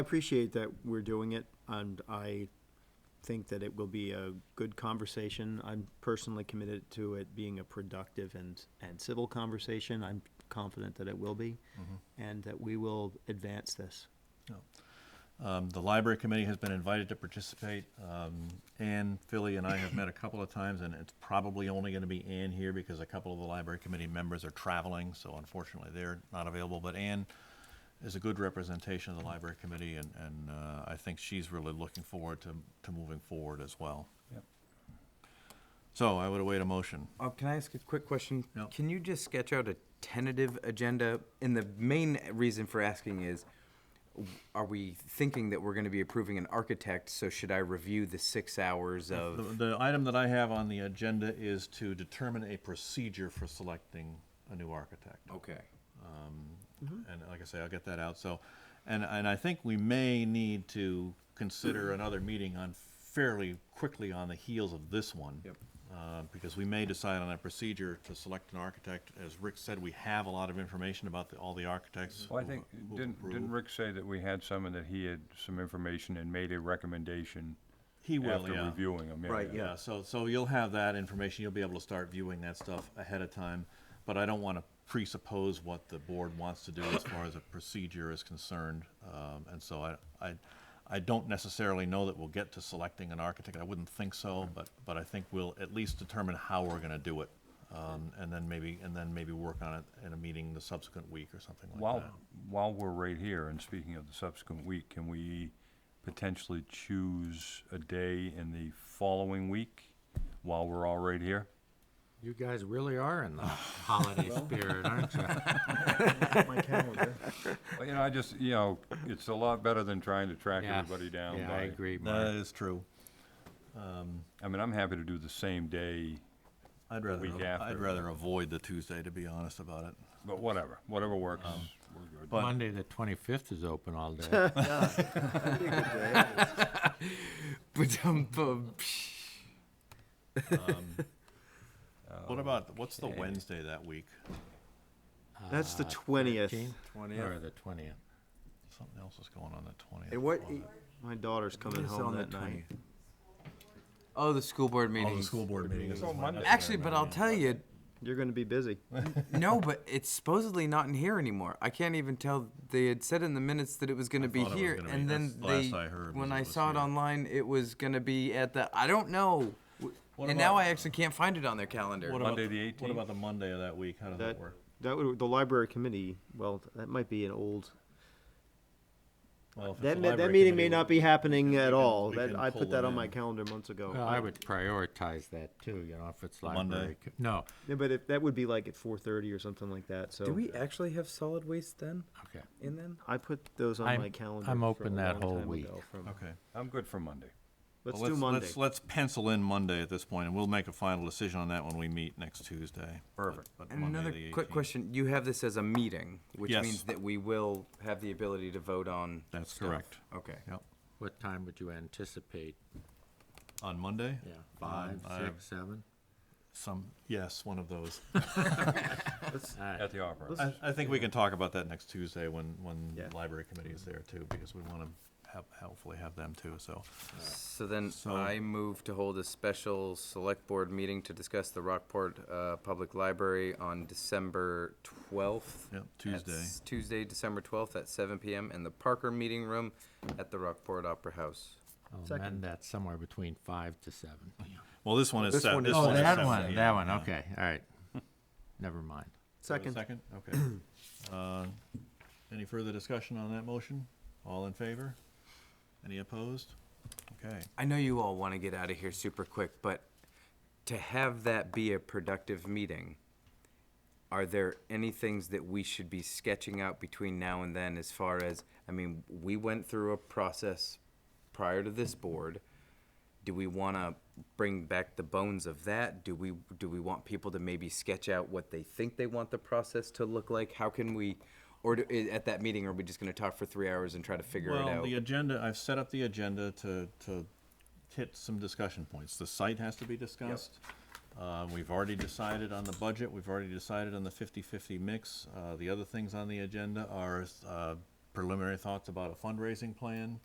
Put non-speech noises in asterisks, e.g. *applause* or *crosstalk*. appreciate that we're doing it, and I think that it will be a good conversation. I'm personally committed to it being a productive and, and civil conversation. I'm confident that it will be, Mm-hmm. and that we will advance this. Um, The library committee has been invited to participate. Um, Ann, Philly, and I have met a couple of times, and it's probably only going to be Ann here because a couple of the library committee members are traveling, so unfortunately, they're not available. But Ann is a good representation of the library committee, and, and uh, I think she's really looking forward to, to moving forward as well. Yep. So I would await a motion. Uh, can I ask a quick question? No. Can you just sketch out a tentative agenda? And the main reason for asking is, w- are we thinking that we're going to be approving an architect? So should I review the six hours The, of? the item that I have on the agenda is to determine a procedure for selecting a new architect. Okay. Mm-hmm. And like I say, I'll get that out, so, and, and I think we may need to *clears throat* consider another meeting on fairly quickly on the heels of this one. Yep. Uh, because we may decide on a procedure to select an architect. As Rick said, we have a lot of information about the, all the architects. Well, I who- think, who didn't, didn't approved. Rick say that we had some and that he had some information and made a recommendation He will, after yeah. reviewing them? Right, yeah. Yeah, so, so you'll have that information, you'll be able to start viewing that stuff ahead of time, but I don't want to presuppose what the board wants to do as far as a procedure is concerned, um, and so I, I, I don't necessarily know that we'll get to selecting an architect, I wouldn't think so, but, but I think we'll at least determine how we're gonna do it, um, and then maybe, and then maybe work on it in a meeting the subsequent week or something like While, that. while we're right here, and speaking of the subsequent week, can we potentially choose a day in the following week while we're all right here? You guys really are in *laughs* the holiday spirit, aren't you? My *laughs* calendar. Well, you know, I just, you know, it's a lot better than trying to track Yes. everybody down. Yeah, I by- agree, That Mark. is true, I mean, I'm happy to do the same day, I'd rather, Week I'd after. rather avoid the Tuesday, to be honest about it. but whatever, whatever works, Um, we're good. but- Monday, the twenty-fifth is open all day. But um, bu- What about, what's the Wednesday that week? That's Uh, the twentieth. Or the twentieth. Something else is going on the twentieth. And what, my daughter's coming home that night. oh, the school board meetings. Oh, the school board meeting is on Monday. Actually, but I'll tell you, You're gonna be *laughs* busy. no, but it's supposedly not in here anymore. I can't even tell. They had said in the minutes that it was going to be thought it was here, gonna be- and then that's the they, last I heard was when it I was saw it here. online, it was going to be at the. I don't know. and now about- I actually can't find it on their calendar. What about, Monday the the what 18th? about the Monday of that week? How does that That, work? that would, the library committee, well, that might be an old, Well, if it's that, the ma- that library meeting may committee, not be happening at can- all. we That, can I pull put that them on my in. calendar months ago. Well, I would prioritize that too, you know, if it's Monday. library. co- No, Yeah, but if, that would be like at four thirty or something like that, so. Do we actually have solid waste then? okay. In then? I put those on I'm- my calendar. I'm for a open that long whole time week. ago from- Okay. I'm good for Monday. Let's Well, do Monday. Let's, let's pencil in Monday at this point, and we'll make a final decision on that when we meet next Tuesday. Perfect. But, And Monday another the quick 18th. question: You have this as a meeting, which Yes. means that we will have the ability to vote on. That's stuff. correct. Okay. Yep. What time would you anticipate? On Monday? Yeah, Um, five, I have six, seven? Some, yes, one of those. *laughs* All right. At the Opera. House. I, I think we can talk about that next Tuesday when, when Yeah. library committee is there too, because we want to have, hopefully have them too, so. So then So- I move to hold a special select board meeting to discuss the Rockport uh, Public Library on December 12th. Yep, at Tuesday. s- Tuesday, December 12th at 7 PM in the Parker Meeting Room at the Rockport Opera House. I'll Second. amend that Oh, somewhere between five to seven. Well, this one is This set, one this is one Oh, is set. set. that one, yeah, that one, yeah. okay, all *laughs* right. Never mind. Second. Second, *clears throat* okay. Uh, Any further discussion on that motion? All in favor? Any opposed? Okay, I know you all want to get out of here super quick, but to have that be a productive meeting, are there any things that we should be sketching out between now and then as far as, I mean, we went through a process prior to this board. Do we want to bring back the bones of that? Do we, do we want people to maybe sketch out what they think they want the process to look like? How can we, or do- i- at that meeting, are we just going to talk for three hours and try to figure it well, out? the agenda, I've set up the agenda to, to hit some discussion points. The site has to be discussed. Uh, We've already decided on the budget, we've already decided on the 50-50 mix. Uh, The other things on the agenda are uh, preliminary thoughts about a fundraising plan,